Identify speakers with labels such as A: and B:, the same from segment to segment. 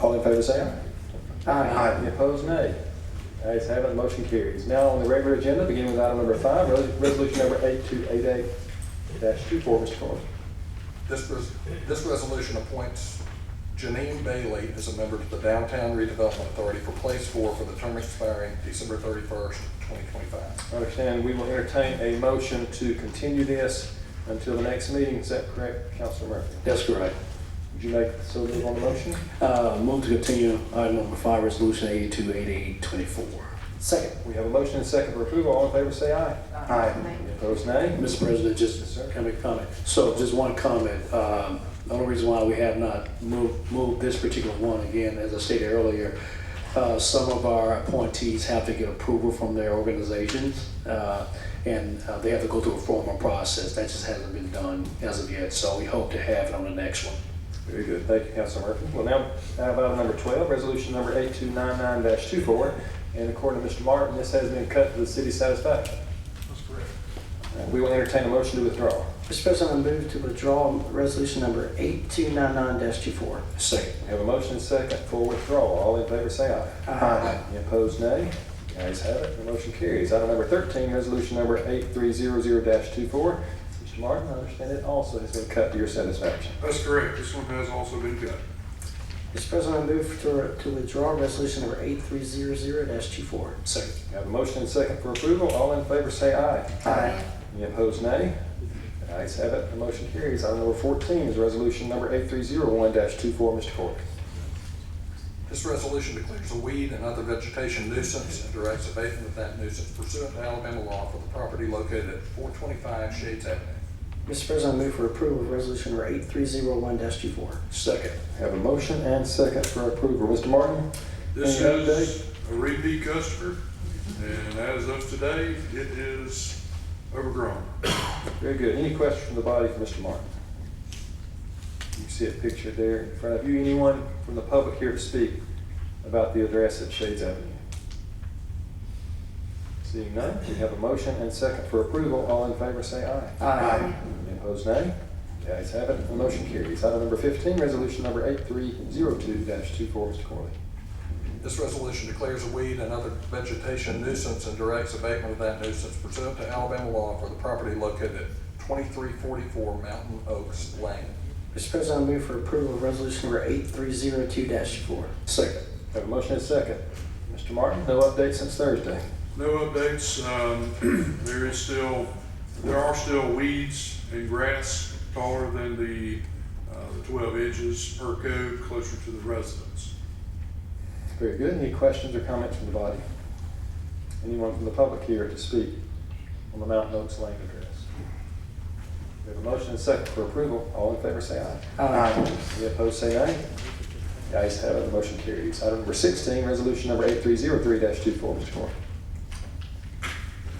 A: All in favor, say aye.
B: Aye.
A: Any opposed, nay. Ayes have it, motion carries. Now on the regular agenda, beginning with item number five, res- resolution number 8288-24, Mr. Carter.
C: This, res- this resolution appoints Janine Bailey as a member to the Downtown Redevelopment Authority for Place Four for the term expiring December thirty-first, twenty twenty-five.
A: I understand we will entertain a motion to continue this until the next meeting. Is that correct, Councilor Murphy?
B: That's correct.
A: Would you like so move on the motion?
B: Uh, move to continue item number five, resolution eighty-two eighty-eight twenty-four.
A: Second. We have a motion and second for approval. All in favor, say aye.
D: Aye.
A: Any opposed, nay.
B: Mr. President,
A: Yes,
B: just
A: sir.
B: can I make a comment. So just one comment. Um, The only reason why we have not moved, moved this particular one, again, as I stated earlier, uh, some of our appointees have to get approval from their organizations, uh, and uh, they have to go through a formal process. That just hasn't been done as of yet, so we hope to have it on the next one.
A: Very good. Thank you, Councilor Murphy. Well, now, now about item number 12, resolution number 8299-24. And according to Mr. Martin, this has been cut to the city's satisfaction. That's correct. We will entertain a motion to withdraw.
D: Mr. President, I move to withdraw resolution number 8299-24.
B: Second.
A: We have a motion and second for withdrawal. All in favor, say aye. Any opposed, nay? The ayes have it, the motion carries. Item number 13, resolution number 8300-24. Mr. Martin, I understand it also has been cut to your satisfaction.
E: That's correct, this one has also been cut.
D: Mr. President, I move to to withdraw resolution number 8300-24.
B: Second.
A: We have a motion and second for approval. All in favor, say aye.
D: Aye.
A: Any opposed, nay? The ayes have it, the motion carries. Item number 14 is resolution number 8301-24. Mr. Cork.
C: This resolution declares a weed and other vegetation nuisance and directs abatement of that nuisance pursuant to Alabama law for the property located at four twenty-five Shades Avenue.
D: Mr. President, I move for approval of resolution number 8301-24.
B: Second.
A: Have a motion and second for approval. Mr. Martin?
E: This
A: any update?
E: is a repeat customer, and as of today, it is overgrown.
A: Very good. Any questions from the body for Mr. Martin? You see a picture there in front of you. Anyone from the public here to speak about the address at Shades Avenue? Seeing none, we have a motion and second for approval. All in favor, say aye.
D: Aye.
A: Any opposed, nay? The ayes have it, the motion carries. Item number 15, resolution number 8302-24, Mr. Corley.
C: This resolution declares a weed and other vegetation nuisance and directs abatement of that nuisance pursuant to Alabama law for the property located at twenty-three forty-four Mountain Oaks Lane.
D: Mr. President, I move for approval of resolution number 8302-4.
B: Second.
A: Have a motion and second. Mr. Martin, no update since Thursday.
E: No updates, um, there is still, there are still weeds and grass taller than the, uh, the twelve inches per code closer to the residence.
A: Very good. Any questions or comments from the body? Anyone from the public here to speak on the Mountain Oaks Lane address? We have a motion and second for approval. All in favor, say aye.
D: Aye.
A: Any opposed, say nay. The ayes have it, the motion carries. Item number 16, resolution number 8303-24, Mr. Moore.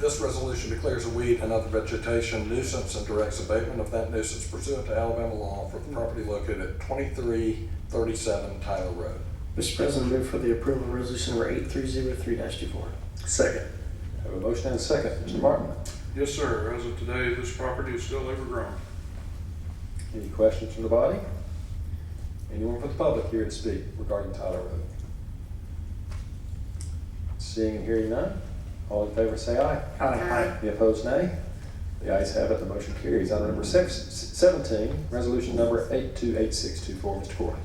C: This resolution declares a weed and other vegetation nuisance and directs abatement of that nuisance pursuant to Alabama law for the property located at twenty-three thirty-seven Tyler Road.
D: Mr. President, I move for the approval of resolution number 8303-4.
B: Second.
A: Have a motion and second. Mr. Martin,
E: Yes, sir, as of today, this property is still overgrown.
A: any questions from the body? Anyone from the public here to speak regarding Tyler Road? Seeing and hearing none, all in favor, say aye.
D: Aye.
A: Any opposed, nay? The ayes have it, the motion carries. Item number six, seventeen, resolution number eight-two-eight-six-two-four, Mr. Corey.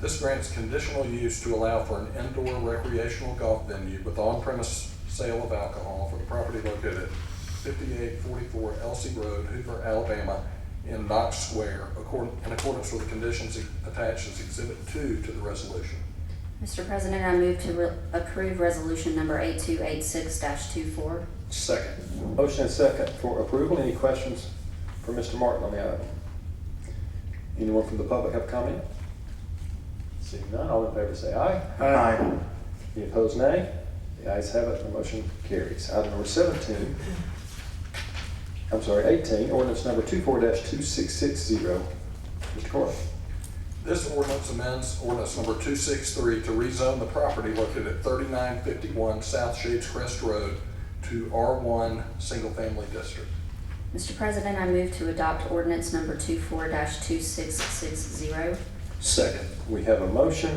C: This grants conditional use to allow for an indoor recreational golf venue with on-premise sale of alcohol for the property located at fifty-eight forty-four Elsie Road, Hoover, Alabama, in Knox Square, according, in accordance with the conditions attached as Exhibit Two to the resolution.
F: Mr. President, I move to re- approve resolution number 8286-24.
B: Second.
A: Motion and second for approval. Any questions for Mr. Martin on the item? Anyone from the public have comment? Seeing none, all in favor say aye.
D: Aye.
A: Any opposed, nay? The ayes have it, the motion carries. Item number seventeen, I'm sorry, eighteen, ordinance number two-four two-six-six-zero. Mr. Corey.
C: This ordinance amends ordinance number 263 to rezone the property located at 3951 South Shades Crest Road to R1 Single Family District.
F: Mr. President, I move to adopt ordinance number 24-2660.
B: Second.
A: We have a motion